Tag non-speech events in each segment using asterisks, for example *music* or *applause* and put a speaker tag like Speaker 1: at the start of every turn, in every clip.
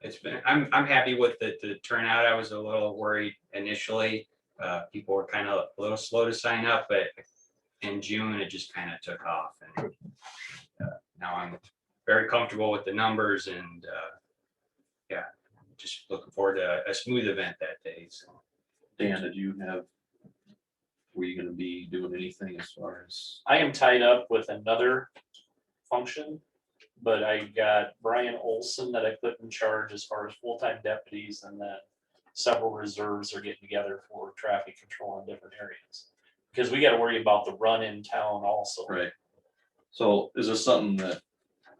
Speaker 1: it's been, I'm, I'm happy with the, the turnout. I was a little worried initially. Uh, people were kind of a little slow to sign up, but in June, it just kind of took off and uh, now I'm very comfortable with the numbers and, uh, yeah, just looking forward to a smooth event that day. So
Speaker 2: Dan, did you have? Were you gonna be doing anything as far as,
Speaker 3: I am tied up with another function, but I got Brian Olson that I put in charge as far as full-time deputies and then several reserves are getting together for traffic control in different areas. Because we gotta worry about the run in town also.
Speaker 2: right? So is this something that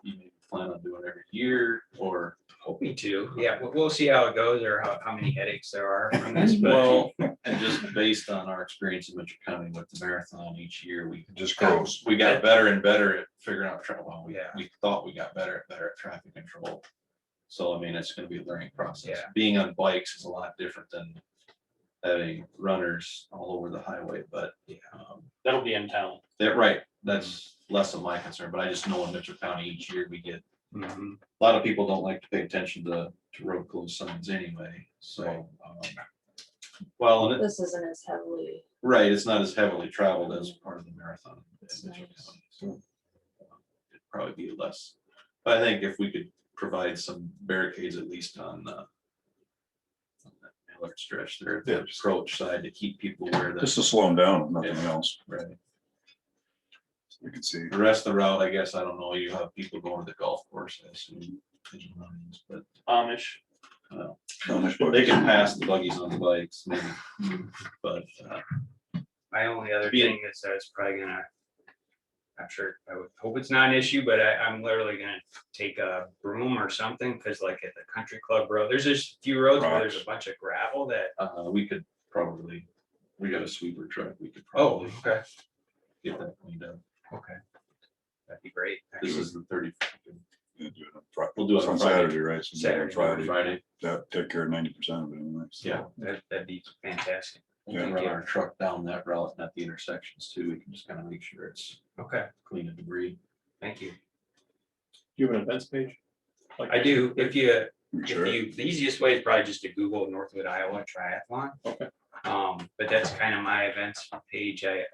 Speaker 2: you may plan on doing every year or?
Speaker 1: hoping to, yeah, we'll, we'll see how it goes or how, how many headaches there are from this, but
Speaker 2: Well, and just based on our experience in Mitchell County with the marathon each year, we.
Speaker 4: It just grows.
Speaker 2: We got better and better at figuring out, tra- well, we,
Speaker 1: Yeah.
Speaker 2: we thought we got better, and better at traffic control. So I mean, it's gonna be a learning process.
Speaker 1: Yeah.
Speaker 2: Being on bikes is a lot different than having runners all over the highway, but.
Speaker 1: Yeah.
Speaker 2: um,
Speaker 3: That'll be in town.
Speaker 2: That, right, that's less of my concern, but I just know in Mitchell County each year we get,
Speaker 1: mhm.
Speaker 2: a lot of people don't like to pay attention to, to road closed signs anyway, so. um, Well, and it-
Speaker 5: This isn't as heavily,
Speaker 2: right, it's not as heavily traveled as part of the marathon.
Speaker 5: That's
Speaker 2: in Mitchell
Speaker 5: nice.
Speaker 2: County, so, um, It'd Probably be less, but I think if we could provide some barricades at least on, uh. on that Mallard stretch there, at the
Speaker 4: Yes.
Speaker 2: approach side to keep people where the,
Speaker 4: This is slowing down, nothing
Speaker 2: Yeah.
Speaker 4: else.
Speaker 2: right.
Speaker 4: You can see.
Speaker 2: The rest of the route, I guess, I don't know, you have people going to the golf courses and pigeon runnings, but
Speaker 3: Amish,
Speaker 2: they can pass the buggies on the bikes, maybe. But uh,
Speaker 1: My only other
Speaker 2: Be-
Speaker 1: thing is that it's probably gonna. I'm sure, I would hope it's not an issue, but I, I'm literally gonna take a broom or something, cause like at the country club road, there's just a few roads where there's a bunch of gravel that.
Speaker 2: uh, we could probably, we got a sweeper truck, we could
Speaker 1: Oh,
Speaker 2: probably
Speaker 1: okay,
Speaker 2: get that cleaned up.
Speaker 1: okay. That'd be great.
Speaker 2: This
Speaker 1: actually.
Speaker 2: is the thirty.
Speaker 4: Yeah, do it on Fri-
Speaker 2: We'll do it
Speaker 4: it's
Speaker 2: on
Speaker 4: on
Speaker 2: Friday.
Speaker 4: Saturday, right? So do it on
Speaker 1: Saturday,
Speaker 4: Friday,
Speaker 2: Friday,
Speaker 4: that take care of ninety percent of it anyway. so.
Speaker 2: yeah.
Speaker 1: That, that'd be fantastic.
Speaker 2: We can run our truck down that route and at the intersections too. We can just kind of make sure it's
Speaker 1: Okay,
Speaker 2: clean of debris.
Speaker 1: thank you.
Speaker 6: Do you have an events page? Like-
Speaker 1: I do, if you,
Speaker 4: Make
Speaker 1: if
Speaker 4: sure.
Speaker 1: you, the easiest way is probably just to Google Northwood Iowa Triathlon.
Speaker 6: Okay.
Speaker 1: Um, but that's kind of my events page. I,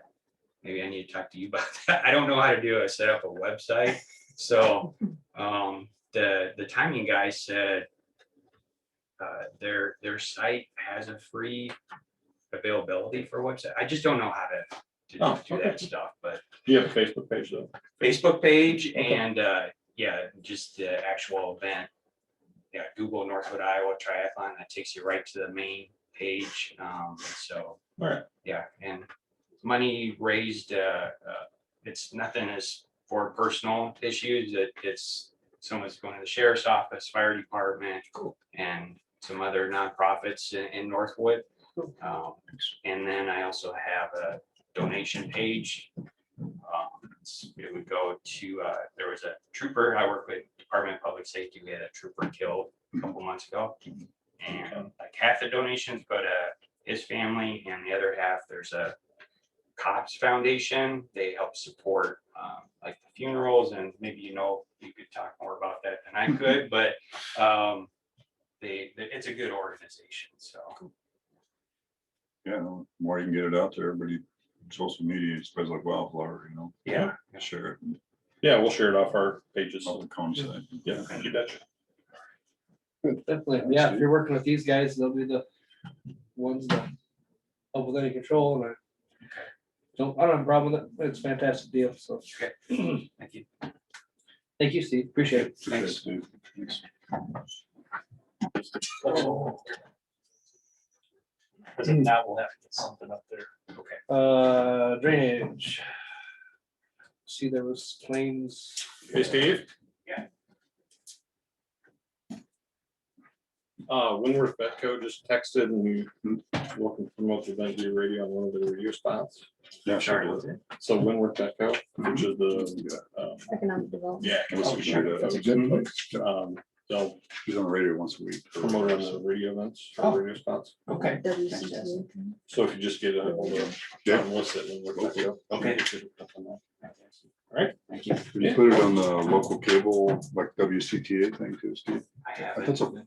Speaker 1: maybe I need to talk to you about that. *laughs* I don't know how to do a set up a website. So, um, the, the timing guy said uh, their, their site has a free availability for website. I just don't know how to
Speaker 2: Oh,
Speaker 1: to do that stuff, but
Speaker 6: Do you have a Facebook page though?
Speaker 1: Facebook page
Speaker 6: Okay.
Speaker 1: and, uh, yeah, just the actual event. Yeah, Google Northwood Iowa Triathlon, that takes you right to the main page, um, so.
Speaker 6: Alright.
Speaker 1: Yeah, and money raised, uh, uh, it's nothing as for personal issues, it, it's someone's going to the sheriff's office, fire department. And some other nonprofits in, in Northwood. Um, and then I also have a donation page. Um, it's- It would go to, uh, there was a trooper, I work with Department of Public Safety, we had a trooper killed a couple months ago. And like half the donations go to his family and the other half, there's a cops foundation. They help support um, like the funerals and maybe, you know, you could talk more about that than I could, but um, they, it's a good organization, so.
Speaker 4: Yeah, no, the more you can get it out there, everybody, social media spreads like wildfire, you know?
Speaker 1: Yeah.
Speaker 4: Share it, and
Speaker 6: Yeah, we'll share it off our pages.
Speaker 4: all the cones. that-
Speaker 6: Yeah, you betcha.
Speaker 7: Definitely, yeah, if you're working with these guys, they'll be the ones that help with any control and I. Don't, I don't have a problem with it, it's a fantastic deal, so,
Speaker 1: Thank you.
Speaker 7: thank you, Steve, appreciate it.
Speaker 1: Thanks.
Speaker 4: Dude, thanks.
Speaker 3: because if not, we'll have to get something up there.
Speaker 7: Uh, drainage. See, there was claims,
Speaker 6: Hey, Steve?
Speaker 1: Yeah.
Speaker 6: Uh, Winworth Betco just texted and looking to promote the event via radio on one of their review spots.
Speaker 4: Yeah, sure.
Speaker 1: Sorry.
Speaker 6: So Winworth Betco, which is the, um,
Speaker 5: economic development.
Speaker 6: yeah.
Speaker 4: Let's
Speaker 6: coffee
Speaker 4: do that.
Speaker 6: shop.
Speaker 4: That's a good place. Yeah,
Speaker 6: Um, They'll
Speaker 4: She's on the radio once a week.
Speaker 6: promote it on the radio events, or radio spots.
Speaker 1: Okay.
Speaker 5: WCTV.
Speaker 6: So if you just get a, hold of
Speaker 4: Yeah.
Speaker 6: John Lissett and Winworth Betco.
Speaker 1: Okay.
Speaker 6: Alright.
Speaker 1: Thank you.
Speaker 4: Can you put it on the local cable, like WCTA thing too, Steve?
Speaker 1: I
Speaker 4: I thought
Speaker 1: haven't,
Speaker 4: so.